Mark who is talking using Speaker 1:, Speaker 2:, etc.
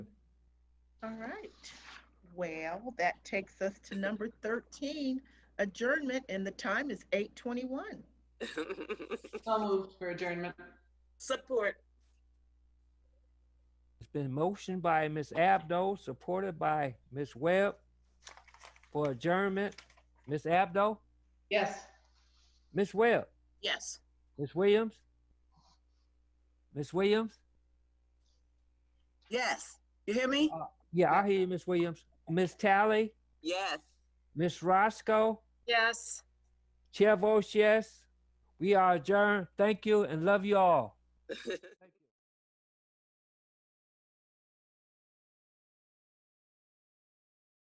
Speaker 1: All right. Well, that takes us to number 13, adjournment, and the time is 8:21.
Speaker 2: So moved for adjournment.
Speaker 3: Support.
Speaker 4: It's been motioned by Ms. Abdo, supported by Ms. Webb for adjournment. Ms. Abdo,
Speaker 2: Yes.
Speaker 4: Ms. Webb,
Speaker 3: Yes.
Speaker 4: Ms. Williams? Ms. Williams?
Speaker 3: Yes. You hear me?
Speaker 4: Uh, Yeah, I hear you, Ms. Williams. Ms. Tally,
Speaker 3: Yes.
Speaker 4: Ms. Roscoe,
Speaker 5: Yes.
Speaker 4: Chair votes yes. We are adjourned. Thank you and love you all.